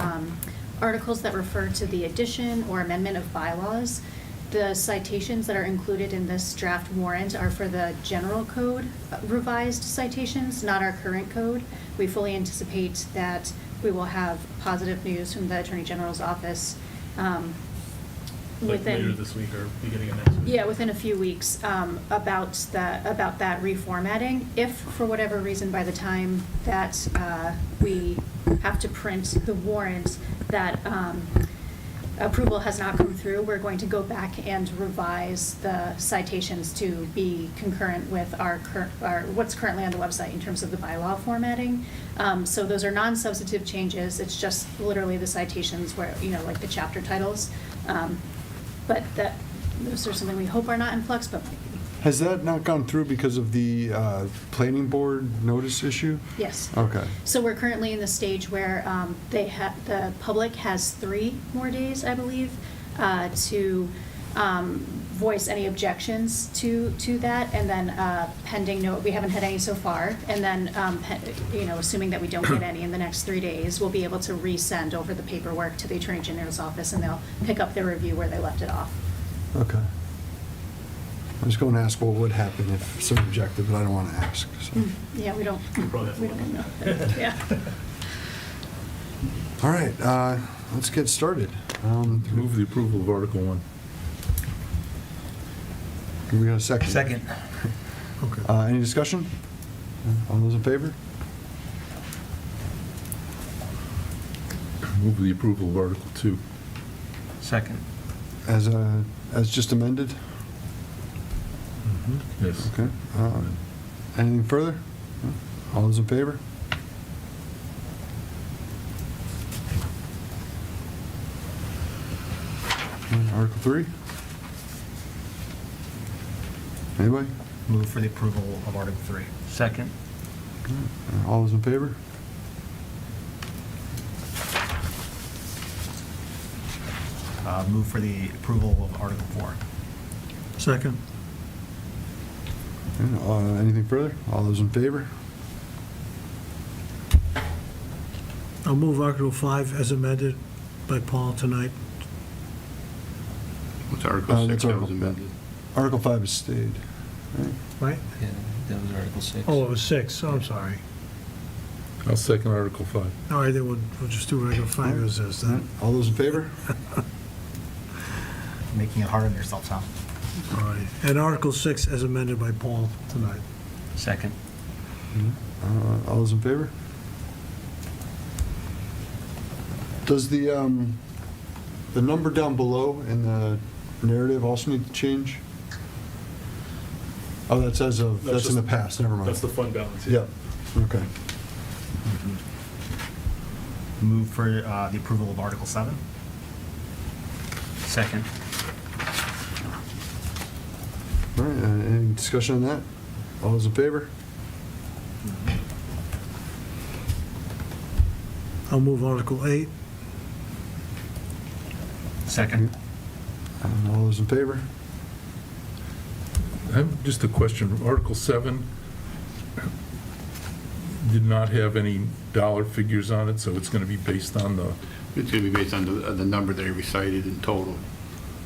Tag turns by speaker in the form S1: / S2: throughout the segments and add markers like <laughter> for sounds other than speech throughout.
S1: um, articles that refer to the addition or amendment of bylaws. The citations that are included in this draft warrant are for the general code uh, revised citations, not our current code. We fully anticipate that we will have positive news from the Attorney General's office um,
S2: Like
S1: within.
S2: later this week or beginning of next week?
S1: Yeah, within a few weeks, um, about the, about that reformatting. If, for whatever reason, by the time that, uh, we have to print the warrant, that, um, approval has not come through, we're going to go back and revise the citations to be concurrent with our current, our, what's currently on the website in terms of the bylaw formatting. Um, so those are non-substantive changes, it's just literally the citations where, you know, like the chapter titles. Um, but that, those are something we hope are not in flux, but might be.
S3: Has that not gone through because of the uh, planning board notice issue?
S1: yes.
S3: Okay.
S1: So we're currently in the stage where um, they have, the public has three more days, I believe, uh, to um, voice any objections to, to that, and then uh, pending no, we haven't had any so far, and then, um, pe- you know, assuming that we don't get any in the next three days, we'll be able to resend over the paperwork to the Attorney General's office, and they'll pick up their review where they left it off.
S3: Okay. I was going to ask what would happen if some objected, but I don't want to ask, so.
S1: Yeah, we don't,
S2: Hmm. We'll probably have to
S1: we
S2: look
S1: don't know.
S2: at that.
S1: Yeah.
S3: All right, uh, let's get started. Um,
S4: Move the approval of Article 1.
S3: Can we have a second?
S5: Second.
S3: Uh, Any discussion? All those in favor?
S4: Move the approval of Article 2.
S5: Second.
S3: As, uh, as just amended?
S4: Yes.
S3: Okay. Uh, Anything further? No? All those in favor? Uh, Article 3? Anybody?
S6: Move for the approval of Article 3.
S5: Second.
S3: Uh, All those in favor?
S6: Uh, Move for the approval of Article 4.
S7: Second.
S3: Yeah, uh, Anything further? All those in favor?
S7: I'll move Article 5 as amended by Paul tonight.
S4: What's
S3: Uh,
S4: Article
S3: that's
S4: 6 that
S3: Article-
S4: was amended?
S3: Article 5 is stayed. right?
S7: Right?
S5: Yeah, that was Article 6.
S7: Oh, it was 6, I'm sorry.
S4: I'll second Article 5.
S7: All right, then we'll, we'll just do Article 5 as is then.
S3: All those in favor?
S6: Making it hard on yourself, Tom.
S7: All right. And Article 6 as amended by Paul tonight.
S5: Second.
S3: Uh, All those in favor? Does the, um, the number down below in the narrative also need to change? Oh, that says of,
S2: That's
S3: that's in the
S2: just-
S3: past, never mind.
S2: That's the fund balance.
S3: Yeah, okay.
S6: Mm-hmm. Move for uh, the approval of Article 7.
S5: Second.
S3: All right, uh, any discussion on that? All those in favor?
S7: I'll move Article 8.
S5: Second.
S3: And Uh, All those in favor?
S4: I have just a question. Article 7 did not have any dollar figures on it, so it's going to be based on the,
S8: It's going to be based on the, the number that he recited in total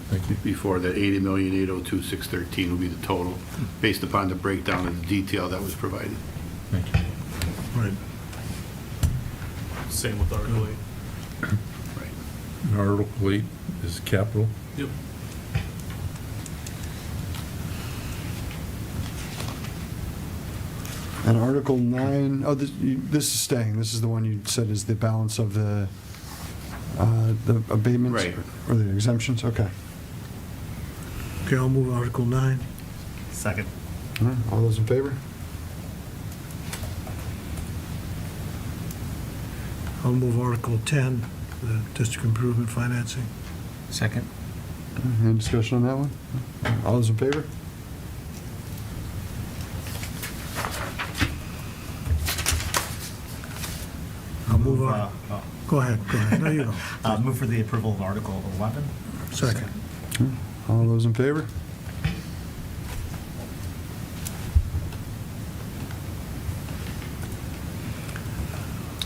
S4: thank you.
S8: before, that 80,802,613 will be the total, based upon the breakdown of the detail that was provided.
S4: Thank you.
S7: Right.
S2: Same with Article eight.
S8: Right.
S4: And Article 8 is capital.
S2: Yep.
S3: And Article 9, oh, this you- this is staying, this is the one you said is the balance of the, uh, the abatements?
S8: Right.
S3: Or the exemptions, okay.
S7: Okay, I'll move Article 9.
S6: Second.
S3: All right, All those in favor?
S7: I'll move Article 10, the district improvement financing.
S5: Second.
S3: Any discussion on that one? All those in favor?
S7: I'll move
S6: uh,
S7: on. Go ahead, go ahead. There you go.
S5: <laughs>
S6: uh, Move for the approval of Article 11.
S7: Second.
S3: All those in favor?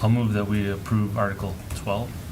S5: I'll move that we approve Article 12.